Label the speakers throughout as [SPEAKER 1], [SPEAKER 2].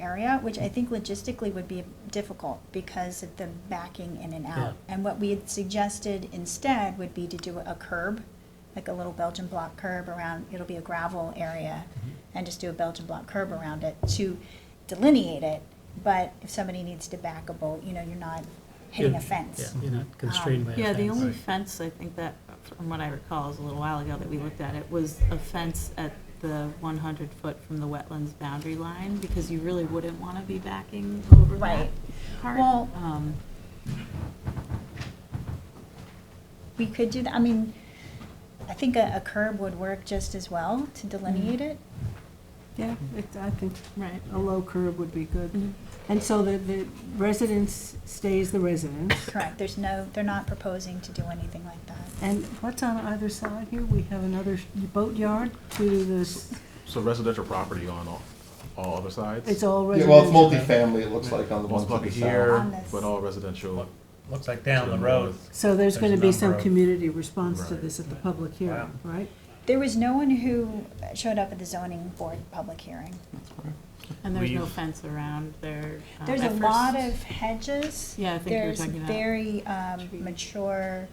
[SPEAKER 1] area, which I think logistically would be difficult because of the backing in and out. And what we had suggested instead would be to do a curb, like a little Belgian block curb around, it'll be a gravel area, and just do a Belgian block curb around it to delineate it. But if somebody needs to back a boat, you know, you're not hitting a
[SPEAKER 2] You're-
[SPEAKER 1] fence. Um,
[SPEAKER 2] Yeah, you're not constrained by a fence.
[SPEAKER 3] Yeah, the only fence, I think that, from what I recall, is a little while ago that we looked at it, was a fence at the 100 foot from the wetlands boundary line, because you really wouldn't want to be backing over that
[SPEAKER 1] Right.
[SPEAKER 3] part.
[SPEAKER 1] Well-
[SPEAKER 3] Um,
[SPEAKER 1] We could do that, I mean, I think a a curb would work just as well to delineate
[SPEAKER 2] Mm-hmm.
[SPEAKER 1] it.
[SPEAKER 4] Yeah, it, I think
[SPEAKER 3] Right.
[SPEAKER 4] a low curb would be good.
[SPEAKER 3] Mhm.
[SPEAKER 4] And so the, the residence stays the residence.
[SPEAKER 1] Correct, there's no, they're not proposing to do anything like that.
[SPEAKER 4] And what's on either side here? We have another boatyard to this,
[SPEAKER 5] So residential property on all, all other sides?
[SPEAKER 4] it's all
[SPEAKER 6] Yeah,
[SPEAKER 4] residential.
[SPEAKER 6] well, it's multifamily, it looks like, on the ones
[SPEAKER 5] Most of
[SPEAKER 6] on the
[SPEAKER 5] it
[SPEAKER 6] south.
[SPEAKER 5] here,
[SPEAKER 1] On this.
[SPEAKER 5] but all residential.
[SPEAKER 7] Looks like down the road,
[SPEAKER 4] So there's gonna be
[SPEAKER 7] There's a
[SPEAKER 4] some
[SPEAKER 7] number of-
[SPEAKER 4] community response to
[SPEAKER 5] Right.
[SPEAKER 4] this at the public hearing,
[SPEAKER 7] Wow.
[SPEAKER 4] right?
[SPEAKER 1] There was no one who showed up at the zoning board public hearing.
[SPEAKER 3] And there's no
[SPEAKER 5] We've-
[SPEAKER 3] fence around there. um,
[SPEAKER 1] There's
[SPEAKER 3] at
[SPEAKER 1] a lot
[SPEAKER 3] first-
[SPEAKER 1] of hedges.
[SPEAKER 3] Yeah, I think you were talking about
[SPEAKER 1] There's very um,
[SPEAKER 3] trees.
[SPEAKER 1] mature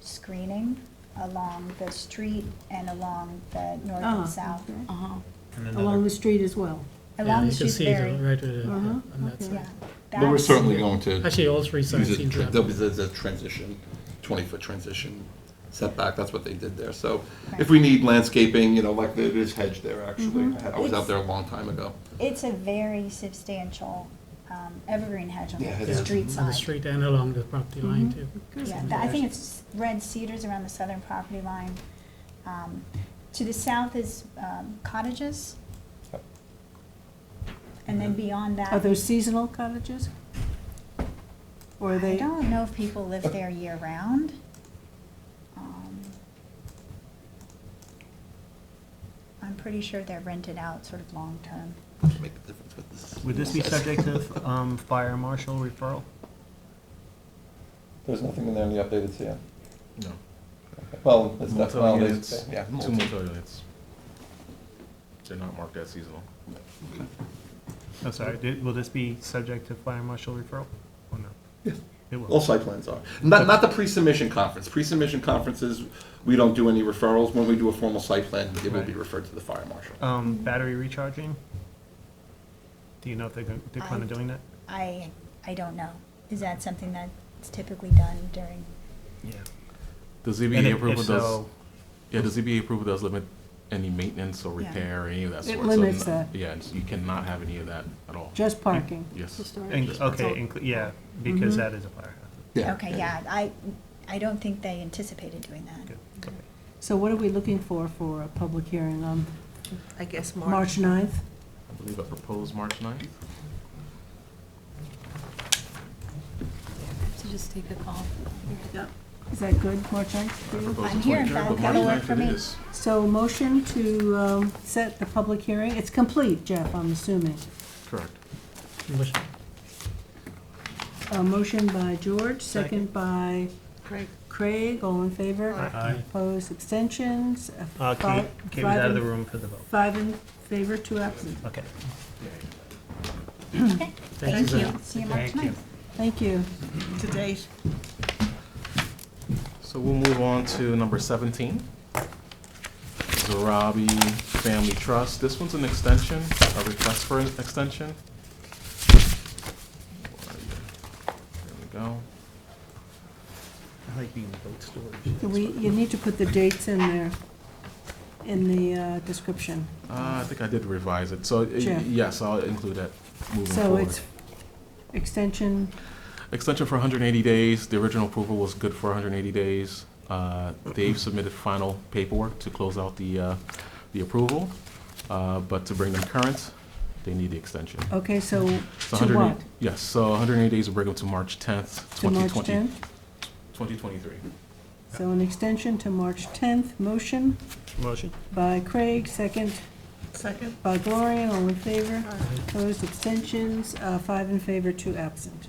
[SPEAKER 1] screening along the street and along the north
[SPEAKER 4] Ah,
[SPEAKER 1] and south.
[SPEAKER 4] okay.
[SPEAKER 3] Uh-huh.
[SPEAKER 7] and
[SPEAKER 4] Along
[SPEAKER 7] another,
[SPEAKER 4] the street as well.
[SPEAKER 2] Yeah,
[SPEAKER 1] Along the
[SPEAKER 2] you can
[SPEAKER 1] street's
[SPEAKER 2] see the,
[SPEAKER 1] very,
[SPEAKER 2] right, uh,
[SPEAKER 4] Uh-huh,
[SPEAKER 2] on that
[SPEAKER 4] okay.
[SPEAKER 2] side.
[SPEAKER 1] yeah.
[SPEAKER 8] But we're
[SPEAKER 1] That's-
[SPEAKER 8] certainly going to
[SPEAKER 2] Actually, all three sides
[SPEAKER 8] use
[SPEAKER 2] seem
[SPEAKER 8] it,
[SPEAKER 2] to have.
[SPEAKER 8] there'll be the the transition, 20-foot transition setback, that's what they did there. So if we need landscaping, you know, like there is hedge there, actually.
[SPEAKER 6] Mm-hmm.
[SPEAKER 8] I I was out there a long time ago.
[SPEAKER 1] It's a very substantial um, evergreen hedge on
[SPEAKER 8] Yeah, it
[SPEAKER 1] the
[SPEAKER 8] is.
[SPEAKER 1] street
[SPEAKER 2] On the
[SPEAKER 1] side. Mm-hmm.
[SPEAKER 2] street and along the property line too.
[SPEAKER 1] Yeah, th- I think it's red cedars around the southern property line. Um, To the south is um, cottages. And then beyond that.
[SPEAKER 4] Are those seasonal cottages? Or are
[SPEAKER 1] I
[SPEAKER 4] they,
[SPEAKER 1] don't know if people live there year-round. Um, I'm pretty sure they're rented out sort of long-term.
[SPEAKER 8] Doesn't make a difference what this-
[SPEAKER 9] Would this be subject to um, fire marshal referral?
[SPEAKER 6] There's nothing in there in the updated CM.
[SPEAKER 5] No.
[SPEAKER 6] Well, it's not, well,
[SPEAKER 5] Motel
[SPEAKER 6] they-
[SPEAKER 5] units,
[SPEAKER 6] yeah.
[SPEAKER 5] two motel units. They're not marked as seasonal.
[SPEAKER 9] I'm Oh, sorry, did- will this be subject to fire marshal referral or no? It
[SPEAKER 8] All
[SPEAKER 9] will.
[SPEAKER 8] site plans are. Not, not the pre-submission conference. Pre-submission conferences, we don't do any referrals. When we do a formal site plan, it will be
[SPEAKER 9] Right.
[SPEAKER 8] referred to the fire marshal.
[SPEAKER 9] Um, Battery recharging? Do you know if they're, gon- they're kind
[SPEAKER 1] I-
[SPEAKER 9] of doing that?
[SPEAKER 1] I, I don't know. Is that something that's typically done during?
[SPEAKER 9] Yeah.
[SPEAKER 5] The
[SPEAKER 9] And
[SPEAKER 5] ZBA
[SPEAKER 9] if- if
[SPEAKER 5] approval does,
[SPEAKER 9] so,
[SPEAKER 5] yeah, the ZBA approval does limit any maintenance or
[SPEAKER 1] Yeah.
[SPEAKER 5] repair, or any of that
[SPEAKER 4] It
[SPEAKER 5] sort. So
[SPEAKER 4] limits
[SPEAKER 5] no-
[SPEAKER 4] that.
[SPEAKER 5] Yeah, it's- you cannot have any of that at all.
[SPEAKER 4] just parking?
[SPEAKER 5] Yes.
[SPEAKER 9] in-
[SPEAKER 5] Just-
[SPEAKER 9] Okay, inclu- yeah,
[SPEAKER 4] Mm-hmm.
[SPEAKER 9] because that is a firehouse.
[SPEAKER 1] Okay, yeah, I, I don't think they anticipated doing that.
[SPEAKER 9] Good, okay.
[SPEAKER 4] So what are we looking for, for a public hearing on
[SPEAKER 10] I guess March.
[SPEAKER 4] March 9th?
[SPEAKER 5] I believe I proposed March ninth.
[SPEAKER 3] So just take the call.
[SPEAKER 4] Is that good, March 9th for
[SPEAKER 5] I
[SPEAKER 4] you?
[SPEAKER 5] proposed
[SPEAKER 1] Mm-hmm. I'm
[SPEAKER 5] the
[SPEAKER 1] here,
[SPEAKER 5] 23rd,
[SPEAKER 1] that-
[SPEAKER 5] but March
[SPEAKER 1] that'll work
[SPEAKER 5] 9th
[SPEAKER 1] for
[SPEAKER 5] it
[SPEAKER 1] me.
[SPEAKER 5] is.
[SPEAKER 4] So motion to um, set the public hearing, it's complete, Jeff, I'm assuming.
[SPEAKER 5] Correct.
[SPEAKER 2] Which-
[SPEAKER 4] A motion by George, second by
[SPEAKER 10] Craig.
[SPEAKER 4] Craig, all in favor?
[SPEAKER 9] Aye.
[SPEAKER 4] Opposed, abstentions? uh,
[SPEAKER 9] Uh, Kate,
[SPEAKER 4] five-
[SPEAKER 9] Kate was
[SPEAKER 4] five
[SPEAKER 9] out of
[SPEAKER 4] in-
[SPEAKER 9] the room for the vote.
[SPEAKER 4] Five in favor, two absent.
[SPEAKER 9] Okay.
[SPEAKER 1] Okay,
[SPEAKER 2] Thank you. Suzanne.
[SPEAKER 1] see you March
[SPEAKER 9] Thank you.
[SPEAKER 1] ninth.
[SPEAKER 4] Thank you.
[SPEAKER 10] Today's
[SPEAKER 5] So we'll move on to number 17. Zarabi Family Trust. This one's an extension, a request for an extension. There we go.
[SPEAKER 9] I like being vote storage.
[SPEAKER 4] Do We, you need to put the dates in there, in the uh, description.
[SPEAKER 5] Uh, I think I did revise it. So, uh,
[SPEAKER 4] Sure.
[SPEAKER 5] yes, I'll include that moving
[SPEAKER 4] So
[SPEAKER 5] forward.
[SPEAKER 4] it's extension,
[SPEAKER 5] Extension for 180 days. The original approval was good for 180 days. Uh, They've submitted final paperwork to close out the, uh, the approval. Uh, But to bring them current, they need the extension.
[SPEAKER 4] okay, so
[SPEAKER 5] So
[SPEAKER 4] to
[SPEAKER 5] 108
[SPEAKER 4] what?
[SPEAKER 5] Yes, so 180 days will bring them to March 10th,
[SPEAKER 4] To March
[SPEAKER 5] 2020.
[SPEAKER 4] 10th?
[SPEAKER 5] 2023.
[SPEAKER 4] So an extension to March 10th, motion
[SPEAKER 9] Motion?
[SPEAKER 4] by Craig, second
[SPEAKER 10] second?
[SPEAKER 4] by Gloria, all in favor. Opposed, abstentions, uh, five in favor, two absent,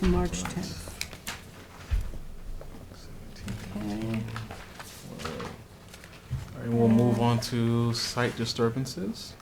[SPEAKER 4] to March 10th. Okay.
[SPEAKER 5] All right, we'll move on to site disturbances.